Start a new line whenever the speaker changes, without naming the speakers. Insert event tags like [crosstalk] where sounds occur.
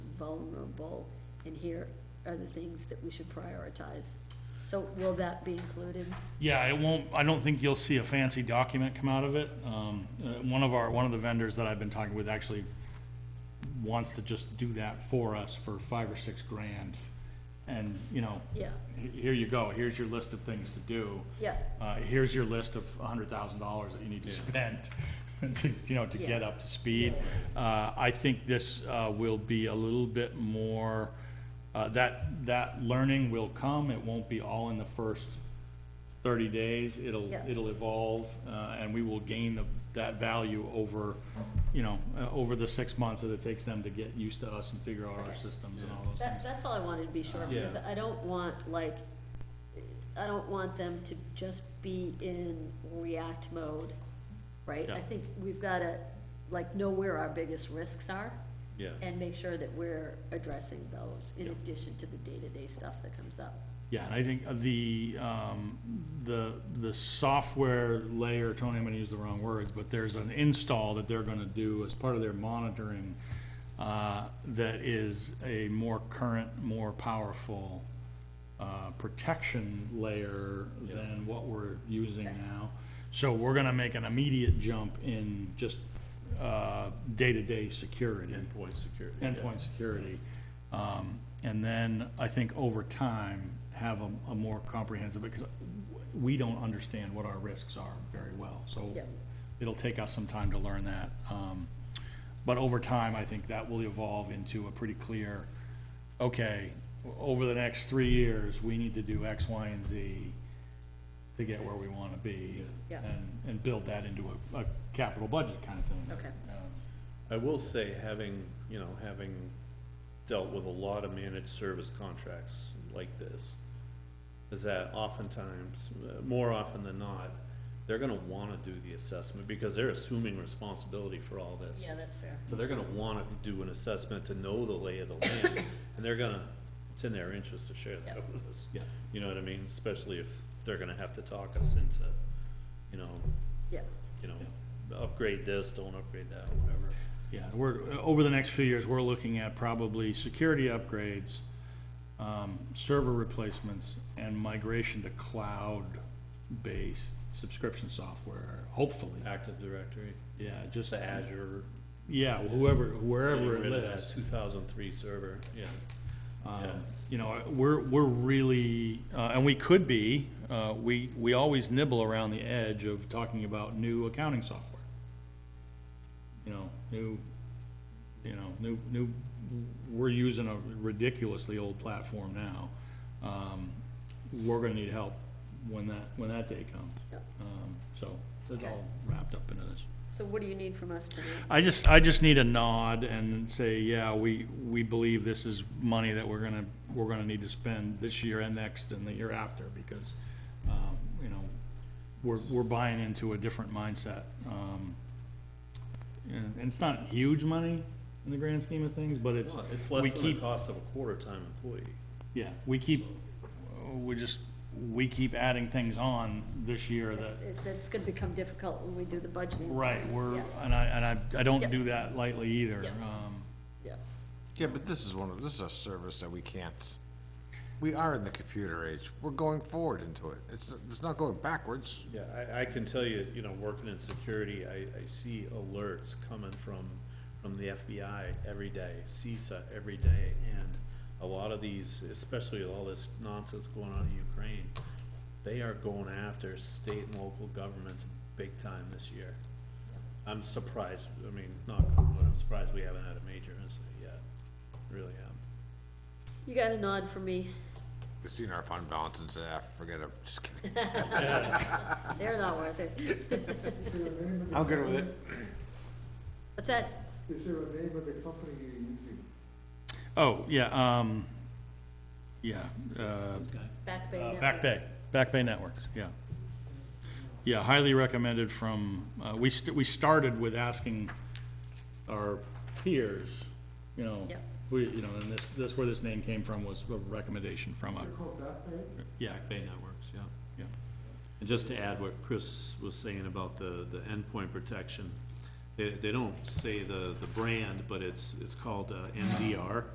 vulnerable, and here are the things that we should prioritize. So will that be included?
Yeah, it won't, I don't think you'll see a fancy document come out of it. Um, uh, one of our, one of the vendors that I've been talking with actually wants to just do that for us for five or six grand. And, you know,
Yeah,
he- here you go, here's your list of things to do.
yeah,
Uh, here's your list of a hundred thousand dollars that you need to spend [laughs] to, you know, to get
Yeah.
up to speed. Uh, I think this, uh, will be a little bit more, uh, that, that learning will come. It won't be all in the first thirty days. It'll,
Yeah.
it'll evolve, uh, and we will gain the, that value over, you know, uh, over the six months that it takes them to get used to us and figure out our
Okay.
systems and all those
that,
things.
that's all I wanted to be sure,
Yeah.
because I don't want, like, I don't want them to just be in react mode, right?
Yeah.
I think we've gotta, like, know where our biggest risks are,
Yeah.
and make sure that we're addressing those, in
Yep.
addition to the day-to-day stuff that comes up.
Yeah, and I think the, um, the, the software layer, Tony, I'm gonna use the wrong words, but there's an install that they're gonna do as part of their monitoring, uh, that is a more current, more powerful, uh, protection layer than what we're using now. So we're gonna make an immediate jump in just, uh, day-to-day security
Endpoint security.
endpoint security. Um, and then I think over time, have a, a more comprehensive, because we don't understand what our risks are very well, so
Yeah.
it'll take us some time to learn that. Um, but over time, I think that will evolve into a pretty clear, okay, over the next three years, we need to do X, Y, and Z to get where we wanna be.
Yeah. Yeah.
And, and build that into a, a capital budget kind of thing.
Okay.
Um,
I will say, having, you know, having dealt with a lot of managed service contracts like this, is that oftentimes, uh, more often than not, they're gonna wanna do the assessment, because they're assuming responsibility for all this.
that's fair.
So they're gonna wanna do an assessment to know the lay of the land, and they're gonna, it's in their interest to share that with us.
Yeah.
You know what I mean? Especially if they're gonna have to talk us into, you know,
Yeah,
you know, upgrade this, don't upgrade that, whatever.
Yeah, we're, over the next few years, we're looking at probably security upgrades, um, server replacements, and migration to cloud-based subscription software, hopefully.
Active Directory,
Yeah, just,
the Azure.
yeah, whoever,
getting
wherever it
rid of that
lives.
2003 server, yeah. Yeah.
Um, You know, we're, we're really, uh, and we could be, uh, we, we always nibble around the edge of talking about new accounting software. You know, new, you know, new, new, we're using a ridiculously old platform now. Um, We're gonna need help when that, when that day comes.
Yep.
Um, So, it's
Okay.
all wrapped up into this.
so what do you need from us tonight?
I just, I just need a nod and say, yeah, we, we believe this is money that we're gonna, we're gonna need to spend this year and next and the year after, because, um, you know, we're, we're buying into a different mindset. Um, and, and it's not huge money in the grand scheme of things, but it's,
Well, It's
we
less than the
keep,
cost of a quarter-time employee.
yeah, we keep, we just, we keep adding things on this year that
It- That's gonna become difficult when we do the budgeting.
Right, we're,
Yeah.
and I, and I, I don't
Yep.
do that lightly either.
Yep.
Um,
Yeah,
Yeah, but this is one of, this is a service that we can't, s- we are in the computer age. We're going forward into it. It's, it's not going backwards.
Yeah, I, I can tell you, you know, working in security, I, I see alerts coming from, from the FBI every day, CISA every day, and a lot of these, especially with all this nonsense going on in Ukraine, they are going after state and local governments big time this year. I'm surprised, I mean, not, but I'm surprised we haven't had a major incident yet, really am.
you got a nod from me,
We've seen our fund balance and say, ah, forget it, just kidding.
they're not worth it,
I'm good with it.
what's that?
Is there a name of the company you're using?
Oh, yeah, um, yeah, uh,
Back Bay
uh,
Networks?
Back Bay, Back Bay Networks, yeah. Yeah, highly recommended from, uh, we, st- we started with asking our peers, you know,
Yep.
we, you know, and this, this, where this name came from was a recommendation from a,
They're called that name?
yeah,
Back Bay Networks, yeah.
Yeah.
And just to add what Chris was saying about the, the endpoint protection, they, they don't say the, the brand, but it's, it's called uh, MDR,